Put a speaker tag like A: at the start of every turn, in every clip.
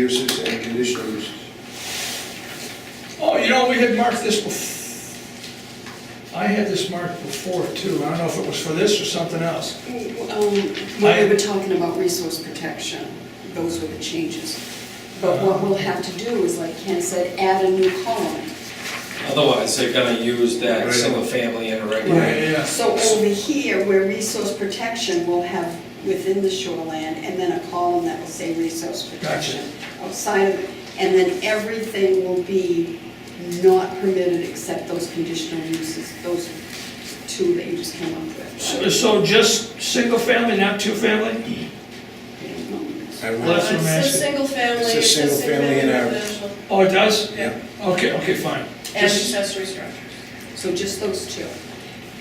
A: uses and conditional uses.
B: Oh, you know, we had marked this bef, I had this marked before too, I don't know if it was for this or something else.
C: Um, When we were talking about resource protection, those were the changes. But what we'll have to do is, like Ken said, add a new column.
D: Otherwise, they're gonna use that
A: Right.
D: single family in a
B: Yeah,
D: regular.
B: yeah, yeah.
C: So over here, where resource protection will have within the shoreland, and then a column that will say resource protection outside of it. And then everything will be not permitted except those conditional uses, those two that you just came up
E: oh.
B: So-
C: with.
B: So just single family, not two family?
A: I
B: Well,
A: would-
B: that's
F: Uh,
B: what I'm
F: It
B: asking.
F: says single family.
A: It says
F: it says
A: single family in our-
F: residential,
B: Oh, it does?
A: Yeah,
B: Okay, okay, fine.
F: And
B: Just-
E: uh,
F: accessory structure.
C: So just those two.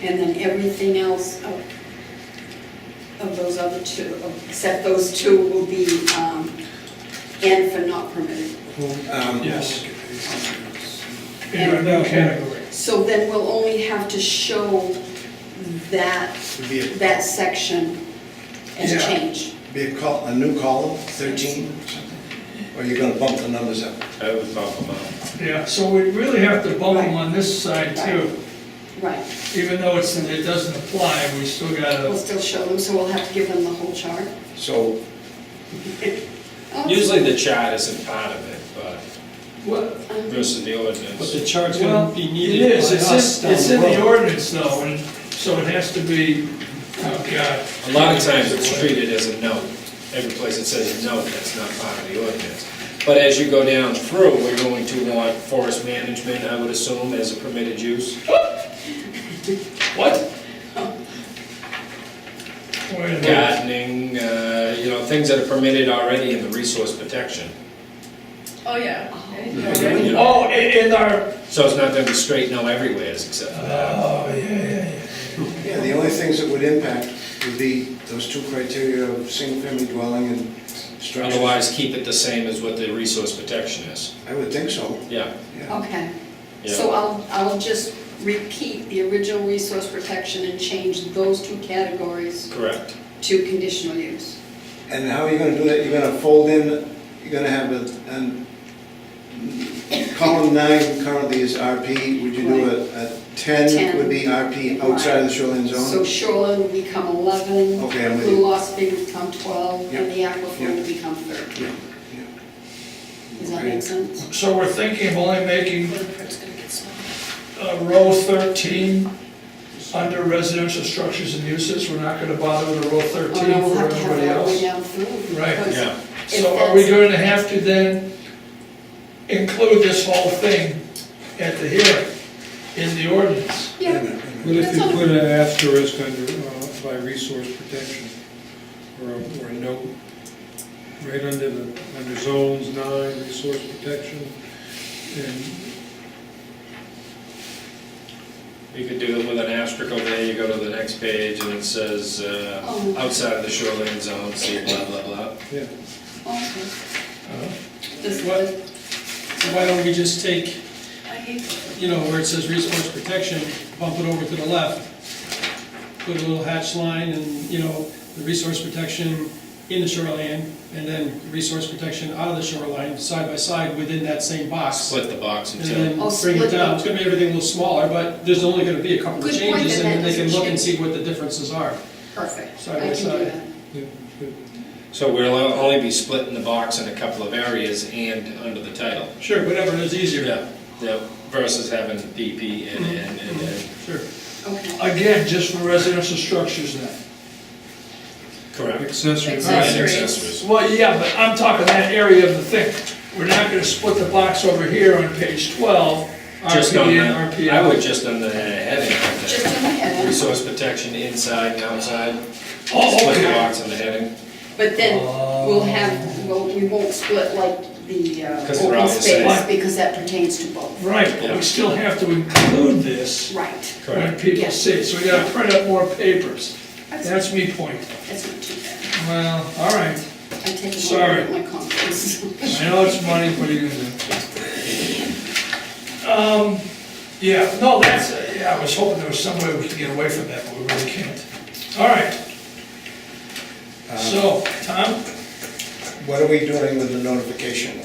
C: And then everything else of, of those other two, of- except those two will be, um, N for not permitted.
A: um,
B: Yes.
C: And-
B: In that category.
C: So then we'll only have to show that,
A: It'd Be a,
C: that section as
B: Yeah.
C: changed.
A: be a col, a new column, thirteen or something? Or you're gonna bump the numbers up?
G: I would bump them up.
B: Yeah, so we really have to bump them on this side too.
C: Right,
B: Even though it's, it doesn't apply, we still
C: we'll
B: gotta,
C: still show them, so we'll have to give them the whole chart.
A: So,
C: Oh,
D: Usually the chart isn't part of it, but
B: what,
G: versus the
E: But
G: ordinance.
E: the chart's
B: well,
E: gonna
B: it
E: be needed by
B: is,
E: us
B: it's in,
E: down
B: it's
E: the
B: in the
E: road.
B: ordinance though, and so it has to be, oh God.
D: a lot of times it's treated as a note. Every place it says note, that's not part of the ordinance. But as you go down through, we're going to want forest management, I would assume, as a permitted use.
B: What? Wait a minute.
D: Gardening, uh, you know, things that are permitted already in the resource protection.
F: Oh, yeah. anything
C: Yeah.
F: already.
D: you know.
B: Oh, i- in our,
D: So it's not gonna be straight no everywhere except for that.
B: oh, yeah, yeah, yeah.
A: yeah, the only things that would impact would be those two criteria of single-family dwelling and structure.
D: Otherwise, keep it the same as what the resource protection is.
A: I would think so,
D: Yeah.
A: yeah.
C: Okay,
D: Yeah.
C: so I'll, I'll just repeat the original resource protection and change those two categories
D: Correct.
C: to conditional use.
A: And how are you gonna do that? You're gonna fold in, you're gonna have a, an, column nine currently is RP, would you do a, a ten
C: Ten.
A: would be RP outside of the shoreline
C: So
A: zone?
C: shoreline will become 11.
A: Okay, I'm with you.
C: Blue loss bay will become 12, and the aquifer
A: yeah.
C: will become 13.
A: Yeah, yeah.
C: Does that make sense?
B: So we're thinking of only making
F: Footprint's gonna get smaller.
B: uh, row 13 under residential structures and uses, we're not gonna bother with a row
C: Oh
B: 13
C: no, we'll
B: for
C: have to have
B: everybody
C: that all the way
B: else.
C: down through.
B: Right,
C: because
D: yeah.
C: if
B: So are we
C: that's-
B: going to have to then include this whole thing at the hearing in the ordinance?
A: Wait a
C: Yeah,
A: minute, wait a minute.
H: What if you
C: That's all.
H: put an asterisk under, uh, by resource protection, or a, or a note, right under the, under zones nine, resource protection, and
D: You could do it with an asterisk over there, you go to the next page, and it says, uh,
C: Oh.
D: outside of the shoreline zone, see blah, blah, blah.
C: Okay. Does-
E: What? So why don't we just take,
F: I hate footprint.
E: you know, where it says resource protection, bump it over to the left, put a little hatch line and, you know, the resource protection in the shoreline, and then resource protection out of the shoreline, side by side within that same box.
D: Split the box
E: And
D: and tell.
E: then
C: I'll
E: bring
C: Oh, split
E: it down,
C: them.
E: it's gonna be everything a little smaller, but there's only gonna be a couple of
C: Good point,
E: changes, and
C: and
E: then
C: that
E: they can look and
C: doesn't
E: see what the differences are.
C: Perfect,
E: Side
C: I
E: by
C: can do
E: side.
C: that.
H: yeah, but
D: So we'll only be splitting the box in a couple of areas and under the title.
E: Sure, whatever is easier.
D: Yeah, yeah, versus having DP and, and, and, and.
E: Sure.
C: Okay.
B: Again, just for residential structures then?
D: Correct.
H: accessory.
D: And
F: Accessories.
D: accessories.
B: Well, yeah, but I'm talking that area of the thing. We're not gonna split the box over here on page 12,
D: Just on
B: RP and
D: the, I
B: RPL.
D: would just on the
C: Just
D: heading.
C: in the head,
D: Resource protection inside and outside,
B: Oh,
D: split the
B: okay.
D: box on the heading.
C: but then we'll have, well, we won't split like the uh,
D: 'Cause they're all
C: open
D: the same.
C: space, because that pertains to both.
B: Right, but we still have to include this
C: Right,
B: when
D: Correct.
B: people
C: Yeah.
B: see it, so we gotta print up more papers.
C: that's,
B: That's me point.
C: that's not too bad.
B: Well, all right,
C: I take it all
B: Sorry.
C: out of my confidence.
B: I know it's money, what are you gonna do? Um, yeah, no, that's, yeah, I was hoping there was some way we could get away from that, but we Uh, really can't. All right. So, Tom?
A: what are we doing with the notification?